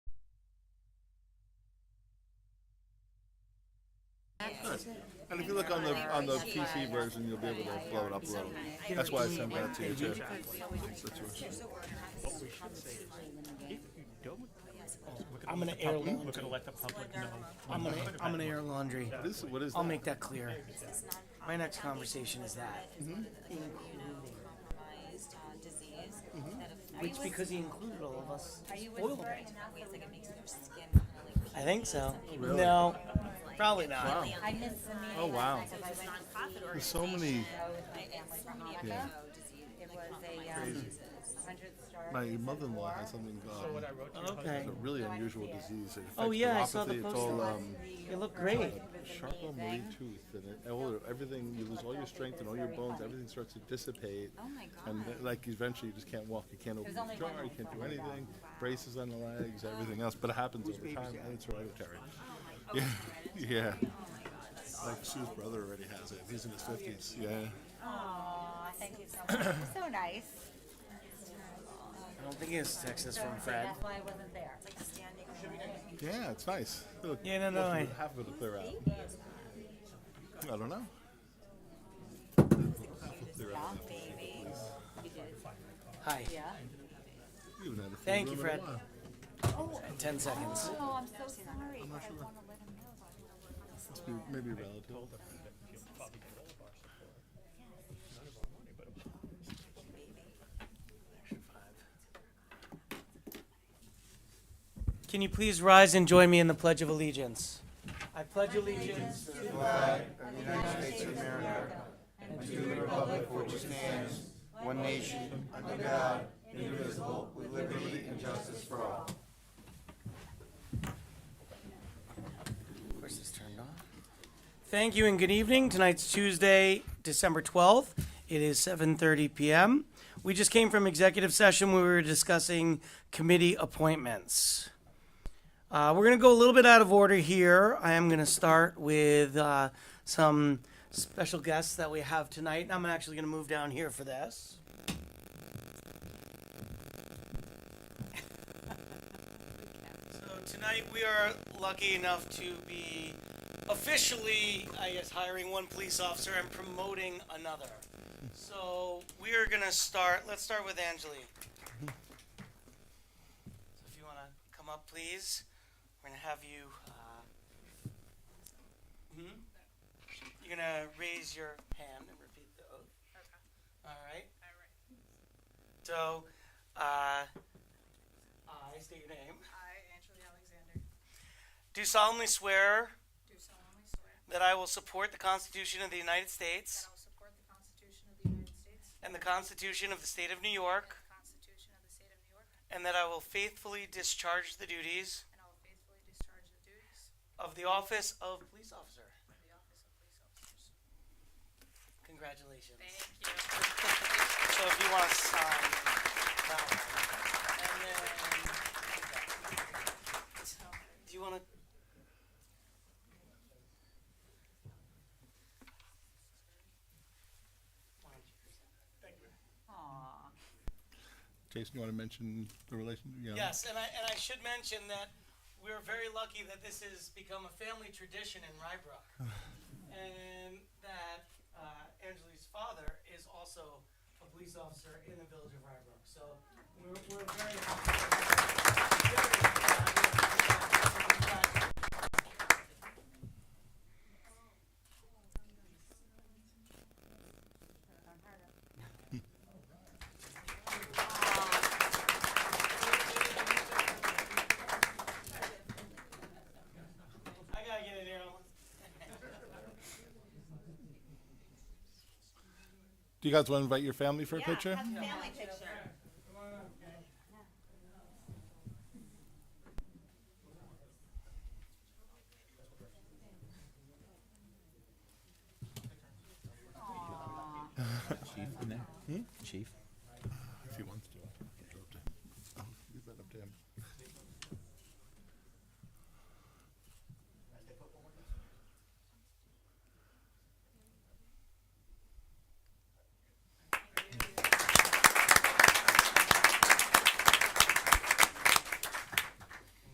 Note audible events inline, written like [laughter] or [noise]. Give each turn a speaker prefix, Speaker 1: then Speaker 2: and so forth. Speaker 1: Good. And if you look on the, on the PC version, you'll be able to blow it up a little. That's why I sent that to you too.
Speaker 2: I'm gonna air
Speaker 3: We're
Speaker 2: laundry.
Speaker 3: gonna let the public know.
Speaker 2: I'm gonna, I'm gonna air laundry.
Speaker 1: What is, what is
Speaker 2: I'll
Speaker 1: that?
Speaker 2: make that clear. My next conversation is that.
Speaker 4: immunocompromised uh, disease that affects.
Speaker 2: Which, because he included all of us,
Speaker 4: Are you
Speaker 2: spoiled
Speaker 4: inferring
Speaker 2: it.
Speaker 4: in that way it's like it makes their skin kind of like.
Speaker 2: Mm-hmm. I think so. No, probably not.
Speaker 1: Wow.
Speaker 4: I missed the meeting.
Speaker 1: Oh, wow.
Speaker 4: It was a nonprofit
Speaker 1: There's so many,
Speaker 4: Yeah. oh, It was a, um, hundred star.
Speaker 1: my mother-in-law has something, um,
Speaker 2: Okay.
Speaker 1: it's a really unusual disease. It
Speaker 2: Oh,
Speaker 1: affects
Speaker 2: yeah, I
Speaker 1: neuropathy.
Speaker 2: saw the
Speaker 1: It's
Speaker 2: poster.
Speaker 1: all, um,
Speaker 2: It looked great.
Speaker 1: Charcot Marie tooth and it, all, everything, you lose all your strength and all your bones, everything starts to dissipate.
Speaker 4: Oh, my
Speaker 1: And
Speaker 4: God.
Speaker 1: like eventually you just can't walk, you can't open
Speaker 4: There's
Speaker 1: the
Speaker 4: only
Speaker 1: jar,
Speaker 4: one Oh.
Speaker 1: you
Speaker 4: that
Speaker 1: can't do
Speaker 4: I found.
Speaker 1: anything, braces on the legs, everything else, but it happens over time and it's hereditary.
Speaker 4: Oh,
Speaker 1: [laughs] Yeah, yeah. Like Sue's brother already has it, he's in
Speaker 4: Oh,
Speaker 1: his fifties, yeah.
Speaker 4: Aw, thank you so
Speaker 1: [coughs]
Speaker 4: much. So nice.
Speaker 2: I don't think it's Texas from Fred.
Speaker 4: That's why I wasn't there. It's like standing.
Speaker 1: Yeah, it's nice. Look,
Speaker 2: Yeah, no, no,
Speaker 1: most of
Speaker 2: I-
Speaker 1: it- Half of it'll clear out. I don't know. Half will clear out. after the
Speaker 4: Baby.
Speaker 2: Hi.
Speaker 4: Yeah.
Speaker 1: We haven't had a full
Speaker 2: Thank you,
Speaker 1: room in a
Speaker 2: Fred.
Speaker 1: while.
Speaker 2: Ten seconds.
Speaker 4: Oh, I'm so sorry. I want to let him know about it.
Speaker 1: Must be maybe a relative.
Speaker 2: Can you please rise and join me in the Pledge of Allegiance? I pledge allegiance to the
Speaker 5: One nation, under God, indivisible, with liberty and justice for all.
Speaker 2: Of course, it's turned on. Thank you and good evening. Tonight's Tuesday, December 12th. It is 7:30 PM. We just came from executive session where we were discussing committee appointments. Uh, we're going to go a little bit out of order here. I am going to start with uh, some special guests that we have tonight. I'm actually going to move down here for this. So tonight we are lucky enough to be officially, I guess, hiring one police officer and promoting another. So we are gonna start. Let's start with Angeli. So if you wanna come up, please, we're gonna have you. Uh, hmm? You're gonna raise your hand and repeat the oath. Okay. All right. All right. So, uh, I state your name.
Speaker 6: I, Angela Alexander,
Speaker 2: Do solemnly swear
Speaker 6: do solemnly swear
Speaker 2: that I will support the Constitution of the United
Speaker 6: that
Speaker 2: States
Speaker 6: I will support the Constitution of the United States
Speaker 2: and the Constitution of the State of New York,
Speaker 6: and the Constitution of the State of New York,
Speaker 2: and that I will faithfully discharge the duties
Speaker 6: and I will faithfully discharge the duties
Speaker 2: of the office of police officer.
Speaker 6: of the office of police officers.
Speaker 2: Congratulations.
Speaker 6: you.
Speaker 2: So if you want to sign that one. And then, do you want to?
Speaker 4: Aw.
Speaker 1: Jason, you want to mention the relation? you know?
Speaker 2: Yes, and I, and I should mention that we're very lucky that this has become a family tradition in Rybrook. and that uh, Angeli's father is also a police officer in the village of Rybrook. So we're, we're very happy. I gotta get in here.
Speaker 1: Do you guys want to invite your family [laughs] for a picture?
Speaker 4: Have a family picture.
Speaker 7: Chief in there? Chief?